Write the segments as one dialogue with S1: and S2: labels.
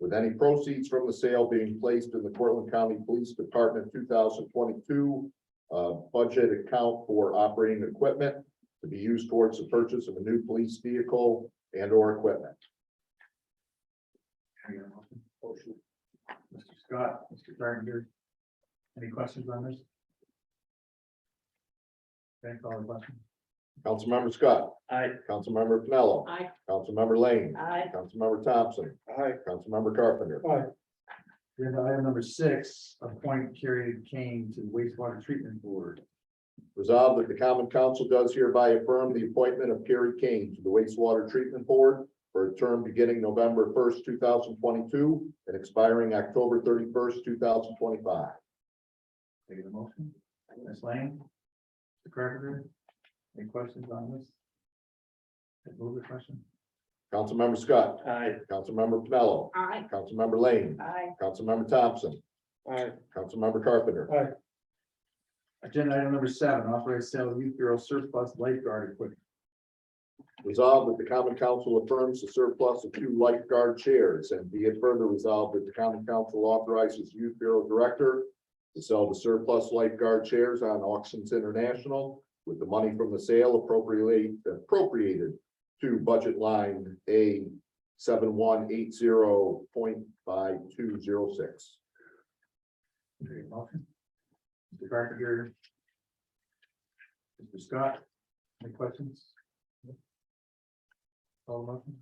S1: with any proceeds from the sale being placed in the Portland County Police Department two thousand twenty-two uh, budget account for operating equipment to be used towards the purchase of a new police vehicle and or equipment.
S2: Hang on. Motion. Mr. Scott, Mr. Gardner. Any questions on this? Can I call the question?
S1: Councilmember Scott,
S2: Aye.
S1: Councilmember Pinello,
S3: Aye.
S1: Councilmember Lane,
S3: Aye.
S1: Councilmember Thompson,
S2: Aye.
S1: Councilmember Carpenter.
S2: Aye. Agenda item number six, appoint Carrie Kane to the wastewater treatment board.
S1: Resolved that the common council does hereby affirm the appointment of Kerry Kane to the wastewater treatment board for a term beginning November first, two thousand twenty-two and expiring October thirty-first, two thousand twenty-five.
S2: Take a motion. Ms. Lane. Mr. Carpenter. Any questions on this? Can I Move the question.
S1: Councilmember Scott,
S2: Aye.
S1: Councilmember Pinello,
S3: Aye.
S1: Councilmember Lane,
S3: Aye.
S1: Councilmember Thompson,
S2: Aye.
S1: Councilmember Carpenter.
S2: Agenda item number seven, authorize sale of youth bureau surplus lifeguard equipment.
S1: Resolved that the common council affirms the surplus of two lifeguard chairs and be it further resolved that the common council authorizes youth bureau director to sell the surplus lifeguard chairs on auctions international with the money from the sale appropriately appropriated to budget line A seven one eight zero point five two zero six.
S2: Very motion. Mr. Carpenter. Mr. Scott, any questions? Call the motion.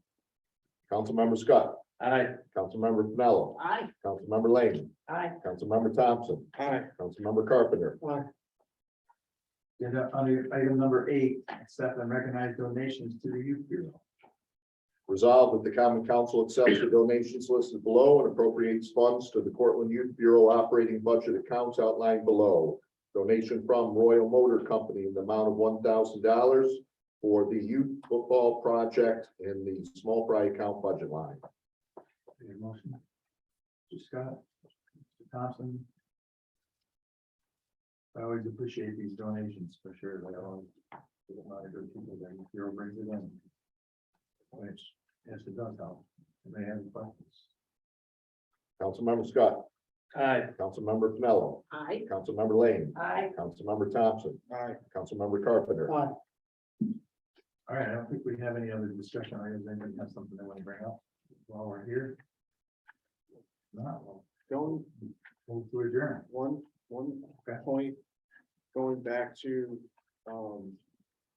S1: Councilmember Scott,
S2: Aye.
S1: Councilmember Pinello,
S3: Aye.
S1: Councilmember Lane,
S3: Aye.
S1: Councilmember Thompson,
S2: Aye.
S1: Councilmember Carpenter.
S2: Agenda under item number eight, accept and recognize donations to the youth bureau.
S1: Resolved that the common council accepts the donations listed below and appropriates funds to the Cortland Youth Bureau operating budget accounts outlined below. Donation from Royal Motor Company in the amount of one thousand dollars for the youth football project in the small fry account budget line.
S2: Any motion? Mr. Scott, Mr. Thompson. I always appreciate these donations for sure. They always. there's a lot of good people that the bureau brings it in. Which, yes, it does help. They have any questions.
S1: Councilmember Scott,
S2: Aye.
S1: Councilmember Pinello,
S3: Aye.
S1: Councilmember Lane,
S3: Aye.
S1: Councilmember Thompson,
S2: Aye.
S1: Councilmember Carpenter.
S2: Aye. All right, I don't think we have any other discussion items. Anybody have something they want to bring up while we're here? Not, well,
S4: Going
S2: move to adjourn.
S4: one, one
S2: Okay.
S4: point, going back to, um,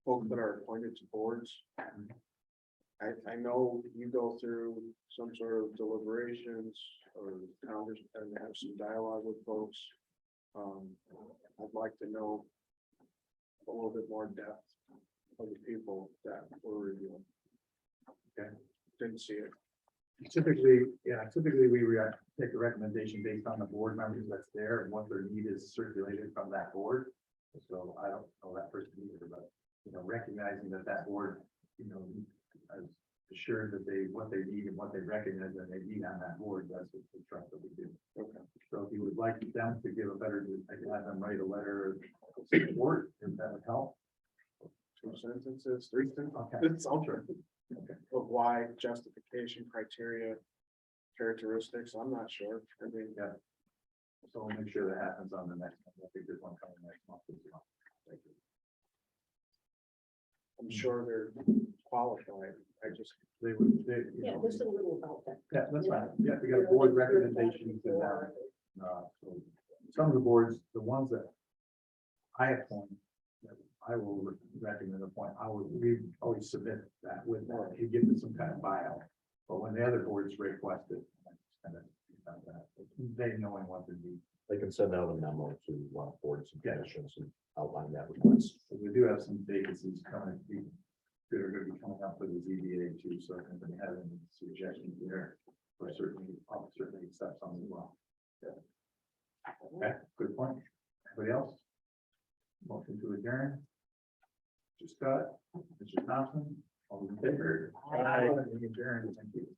S4: folks that are appointed to boards. I, I know you go through some sort of deliberations or congress and have some dialogue with folks. Um, I'd like to know a little bit more depth of the people that we're reviewing. Okay, didn't see it.
S2: Typically, yeah, typically we re- take a recommendation based on the board members that's there and what their need is circulated from that board. So I don't know that person either, but, you know, recognizing that that board, you know, is assured that they, what they need and what they recognize that they need on that board, that's what we try to do.
S4: Okay.
S2: So if you would like them to give a better, I can have them write a letter of support, if that would help.
S4: Two sentences, three sentences.
S2: Okay,
S4: It's ultra. But why justification criteria characteristics, I'm not sure. I mean,
S2: so we'll make sure that happens on the next, one. I think there's one coming next month. as well. Thank you.
S4: I'm sure they're qualified. I just,
S2: They would, they, you
S3: Yeah,
S2: know,
S3: there's a little about that.
S2: yeah, that's right. Yeah, we got board recommendations and that. Uh, so Some of the boards, the ones that I appoint, that I will re- recommend appoint, I would, we always submit that with, that. you give it some kind of bio. But when the other boards request it, I just kind of, about that, they knowing what to do.
S1: They can send out a memo to uh, boards and commissions and outline that request.
S2: So we do have some vacancies coming, we- that are gonna be coming up for the ZBA too, so if anybody has any suggestions there, we're certainly, I'll certainly accept some as well. Yeah. Okay, good point. Anybody else? Motion to adjourn. Mr. Scott, Mr. Thompson, all in favor?
S3: Aye.
S2: Adjourn, thank you.